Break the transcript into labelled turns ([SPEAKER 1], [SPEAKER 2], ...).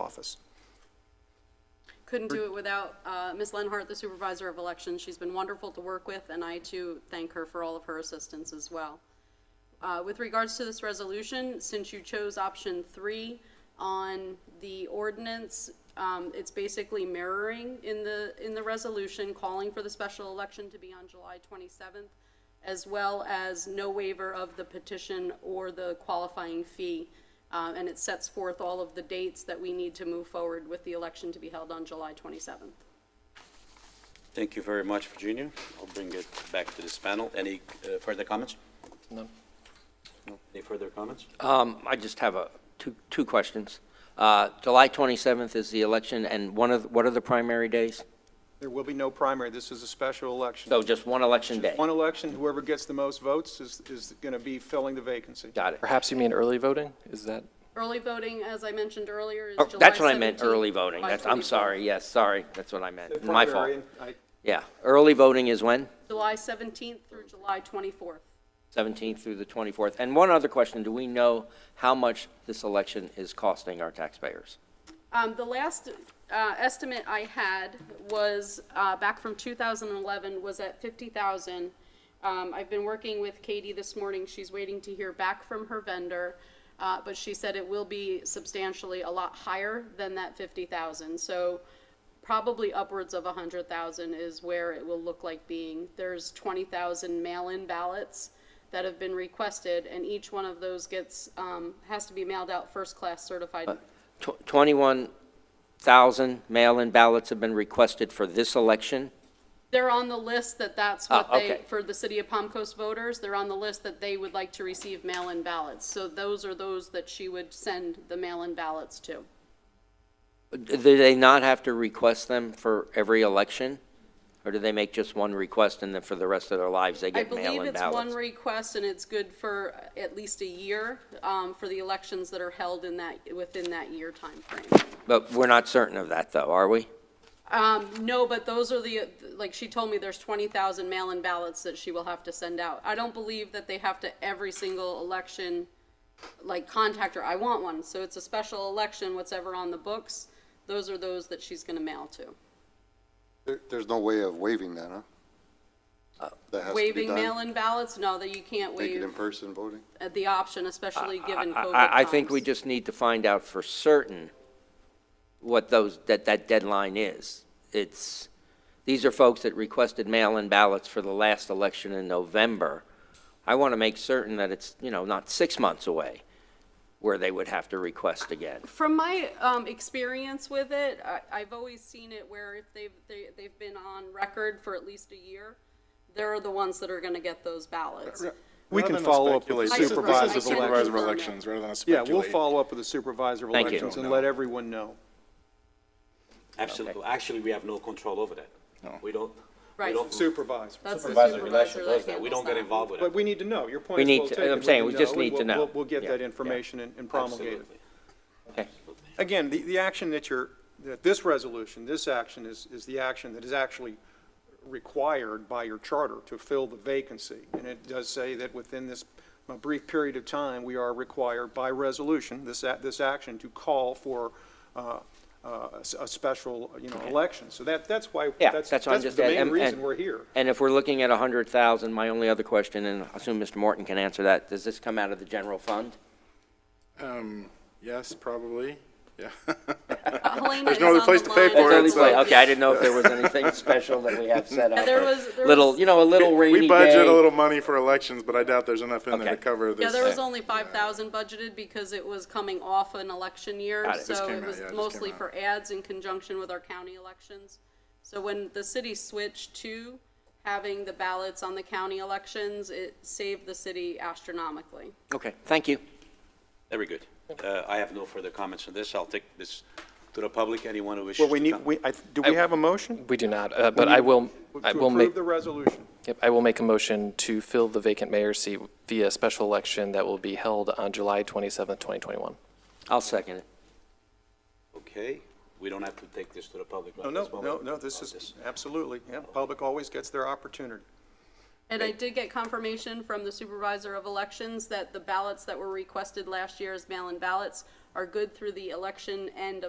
[SPEAKER 1] office.
[SPEAKER 2] Couldn't do it without uh, Ms. Lenhart, the Supervisor of Elections. She's been wonderful to work with, and I too thank her for all of her assistance as well. Uh, With regards to this resolution, since you chose option three on the ordinance, um, it's basically mirroring in the, in the resolution, calling for the special election to be on July 27th, as well as no waiver of the petition or the qualifying fee. Uh, And it sets forth all of the dates that we need to move forward with the election to be held on July 27th.
[SPEAKER 3] Thank you very much, Virginia. I'll bring it back to this panel. Any uh, further comments?
[SPEAKER 4] None.
[SPEAKER 3] Any further comments?
[SPEAKER 5] Um, I just have a, two, two questions. Uh, July 27th is the election, and one of, what are the primary days?
[SPEAKER 1] There will be no primary, this is a special election.
[SPEAKER 5] So just one election day?
[SPEAKER 1] One election, whoever gets the most votes is, is going to be filling the vacancy.
[SPEAKER 5] Got it.
[SPEAKER 4] Perhaps you mean early voting? Is that,
[SPEAKER 2] Early voting, as I mentioned earlier, is
[SPEAKER 5] Oh,
[SPEAKER 2] July 17th.
[SPEAKER 5] That's what I meant, early voting.
[SPEAKER 2] by
[SPEAKER 5] That's, I'm
[SPEAKER 2] 24th.
[SPEAKER 5] sorry, yes, sorry, that's what I meant.
[SPEAKER 1] The
[SPEAKER 5] My fault.
[SPEAKER 1] primary, I-
[SPEAKER 5] Yeah, early voting is when?
[SPEAKER 2] July 17th through July 24th.
[SPEAKER 5] 17th through the 24th. And one other question, do we know how much this election is costing our taxpayers?
[SPEAKER 2] Um, The last uh, estimate I had was, uh, back from 2011, was at 50,000. Um, I've been working with Katie this morning, she's waiting to hear back from her vendor, uh, but she said it will be substantially a lot higher than that 50,000. So probably upwards of 100,000 is where it will look like being. There's 20,000 mail-in ballots that have been requested, and each one of those gets, um, has to be mailed out first-class certified
[SPEAKER 5] Tw- 21,000 mail-in ballots have been requested for this election?
[SPEAKER 2] They're on the list that that's what
[SPEAKER 5] Oh,
[SPEAKER 2] they,
[SPEAKER 5] okay.
[SPEAKER 2] for the city of Palm Coast voters, they're on the list that they would like to receive mail-in ballots. So those are those that she would send the mail-in ballots to.
[SPEAKER 5] Do they not have to request them for every election? Or do they make just one request and then for the rest of their lives, they
[SPEAKER 2] I
[SPEAKER 5] get
[SPEAKER 2] believe
[SPEAKER 5] mail-in
[SPEAKER 2] it's one
[SPEAKER 5] ballots?
[SPEAKER 2] request and it's good for at least a year, um, for the elections that are held in that, within that year timeframe.
[SPEAKER 5] But we're not certain of that, though, are we?
[SPEAKER 2] Um, no, but those are the, like, she told me there's twenty thousand mail-in ballots that she will have to send out. I don't believe that they have to every single election, like, contact her, I want one, so it's a special election, what's ever on the books, those are those that she's gonna mail to.
[SPEAKER 6] There, there's no way of waiving that, huh? That has to be
[SPEAKER 2] Uh, Waiving
[SPEAKER 6] done?
[SPEAKER 2] mail-in ballots, no, that you can't
[SPEAKER 6] Make it
[SPEAKER 2] waive
[SPEAKER 6] in-person voting?
[SPEAKER 2] at the option, especially given
[SPEAKER 5] I-
[SPEAKER 2] COVID
[SPEAKER 5] I, I think we
[SPEAKER 2] times.
[SPEAKER 5] just need to find out for certain what those, that, that deadline is. It's, these are folks that requested mail-in ballots for the last election in November. I want to make certain that it's, you know, not six months away where they would have to request again.
[SPEAKER 2] From my um, experience with it, I, I've always seen it where if they've they, they've been on record for at least a year, they're the ones that are going to get those ballots.
[SPEAKER 1] We can
[SPEAKER 7] Rather than
[SPEAKER 1] follow up with the
[SPEAKER 7] speculate, this is-
[SPEAKER 2] supervisor
[SPEAKER 7] This is
[SPEAKER 2] of
[SPEAKER 7] the
[SPEAKER 2] elections.
[SPEAKER 7] supervisor of elections, rather than
[SPEAKER 1] Yeah, we'll
[SPEAKER 7] speculate.
[SPEAKER 1] follow up with the supervisor of
[SPEAKER 5] Thank you.
[SPEAKER 1] elections and let everyone know.
[SPEAKER 3] Absolutely. Actually, we have no control over that. We don't, we
[SPEAKER 2] Right.
[SPEAKER 3] don't,
[SPEAKER 1] Supervisor.
[SPEAKER 2] That's the
[SPEAKER 3] supervisor
[SPEAKER 2] supervisor
[SPEAKER 3] of election
[SPEAKER 2] that
[SPEAKER 3] does that. We
[SPEAKER 2] handles
[SPEAKER 3] don't get
[SPEAKER 2] that.
[SPEAKER 3] involved with
[SPEAKER 1] But
[SPEAKER 3] that.
[SPEAKER 1] we need to know, your
[SPEAKER 5] We
[SPEAKER 1] point
[SPEAKER 5] need
[SPEAKER 1] is well
[SPEAKER 5] to-
[SPEAKER 1] taken.
[SPEAKER 5] I'm saying,
[SPEAKER 1] We
[SPEAKER 5] we just
[SPEAKER 1] know, and
[SPEAKER 5] need to
[SPEAKER 1] we'll-
[SPEAKER 5] know.
[SPEAKER 1] we'll- We'll get
[SPEAKER 5] Yeah,
[SPEAKER 1] that
[SPEAKER 5] yeah.
[SPEAKER 1] information and and promulgate it.
[SPEAKER 3] Absolutely.
[SPEAKER 5] Okay.
[SPEAKER 1] Again, the, the action that you're, that this resolution, this action is, is the action that is actually required by your charter to fill the vacancy. And it does say that within this uh, brief period of time, we are required by resolution, this, a- this action, to call for uh, uh, a s- a special, you know, election. So that, that's why,
[SPEAKER 5] Yeah,
[SPEAKER 1] that's,
[SPEAKER 5] that's what I'm
[SPEAKER 1] that's
[SPEAKER 5] just.
[SPEAKER 1] the main
[SPEAKER 5] and- and-
[SPEAKER 1] reason we're here.
[SPEAKER 5] And if we're looking at 100,000, my only other question, and I assume Mr. Morton can answer that, does this come out of the general fund?
[SPEAKER 7] Um, yes, probably, yeah.
[SPEAKER 2] Helena
[SPEAKER 7] There's
[SPEAKER 2] is
[SPEAKER 7] no other
[SPEAKER 2] on
[SPEAKER 7] place
[SPEAKER 2] the
[SPEAKER 7] to pay
[SPEAKER 2] line.
[SPEAKER 7] for
[SPEAKER 5] That's
[SPEAKER 7] it,
[SPEAKER 5] only
[SPEAKER 7] so-
[SPEAKER 5] play- Okay, I didn't know if there was anything special that we have set up.
[SPEAKER 2] there
[SPEAKER 5] or
[SPEAKER 2] was- there
[SPEAKER 5] Little,
[SPEAKER 2] was-
[SPEAKER 5] you know, a little rainy day.
[SPEAKER 7] We budget a little money for elections, but I doubt there's enough in there to
[SPEAKER 5] Okay.
[SPEAKER 7] cover this.
[SPEAKER 2] Yeah, there was only five thousand budgeted because it was coming off an election year,
[SPEAKER 5] Got it.
[SPEAKER 7] Just
[SPEAKER 2] so
[SPEAKER 7] came
[SPEAKER 2] it
[SPEAKER 7] out,
[SPEAKER 2] was
[SPEAKER 7] yeah, it just came
[SPEAKER 2] mostly
[SPEAKER 7] out.
[SPEAKER 2] for ads in conjunction with our county elections. So when the city switched to having the ballots on the county elections, it saved the city astronomically.
[SPEAKER 5] Okay, thank you.
[SPEAKER 3] Very good. Uh, I have no further comments on this. I'll take this to the public, anyone who wishes
[SPEAKER 1] Well, we
[SPEAKER 3] to
[SPEAKER 1] need,
[SPEAKER 3] come.
[SPEAKER 1] we, I- do we have a motion?
[SPEAKER 4] we do not, uh, but I will, I will
[SPEAKER 1] To
[SPEAKER 4] make,
[SPEAKER 1] approve the resolution.
[SPEAKER 4] yep, I will make a motion to fill the vacant mayor's seat via special election that will be held on July 27th, 2021.
[SPEAKER 5] I'll second it.
[SPEAKER 3] Okay, we don't have to take this to the public.
[SPEAKER 1] Oh, No, no, no, no, this is, absolutely, yeah, public always gets their opportunity.
[SPEAKER 2] And I did get confirmation from the supervisor of elections that the ballots that were requested last year as mail-in ballots are good through the election end of